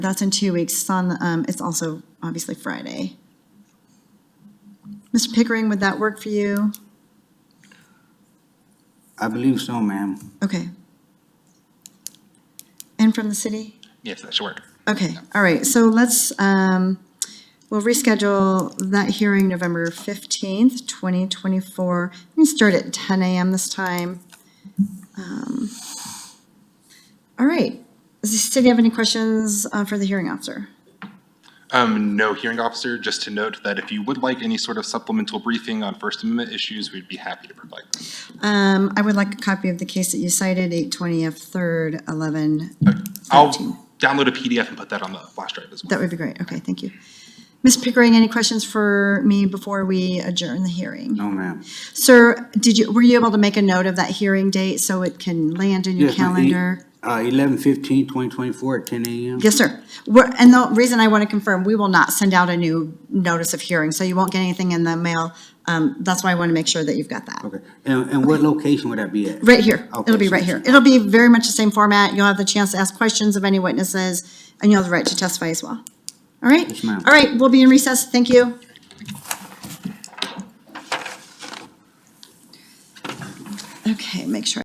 That's in two weeks. It's on, um, it's also obviously Friday. Mr. Pickering, would that work for you? I believe so, ma'am. Okay. And from the city? Yes, that should work. Okay, all right, so let's, um, we'll reschedule that hearing November fifteenth, twenty twenty-four. We can start at ten AM this time. Um, All right, does the city have any questions, uh, for the hearing officer? Um, no hearing officer, just to note that if you would like any sort of supplemental briefing on First Amendment issues, we'd be happy to provide them. Um, I would like a copy of the case that you cited, eight twenty F third, eleven I'll thirteen. download a PDF and put that on the flash drive as well. That would be great, okay, thank you. Ms. Pickering, any questions for me before we adjourn the hearing? No, ma'am. Sir, did you, were you able to make a note of that hearing date so it can land in your Yes, ma'am. calendar? Uh, eleven fifteen, twenty twenty-four at ten AM? Yes, sir. We're, and the reason I want to confirm, we will not send out a new notice of hearing, so you won't get anything in the mail. Um, that's why I want to make sure that you've got that. Okay, and, and what location would that be at? Right here. Okay, It'll be so right it's- here. It'll be very much the same format. You'll have the chance to ask questions of any witnesses, and you'll have the right to testify as well. All right? Yes, ma'am. All right, we'll be in recess. Thank you. Okay, make sure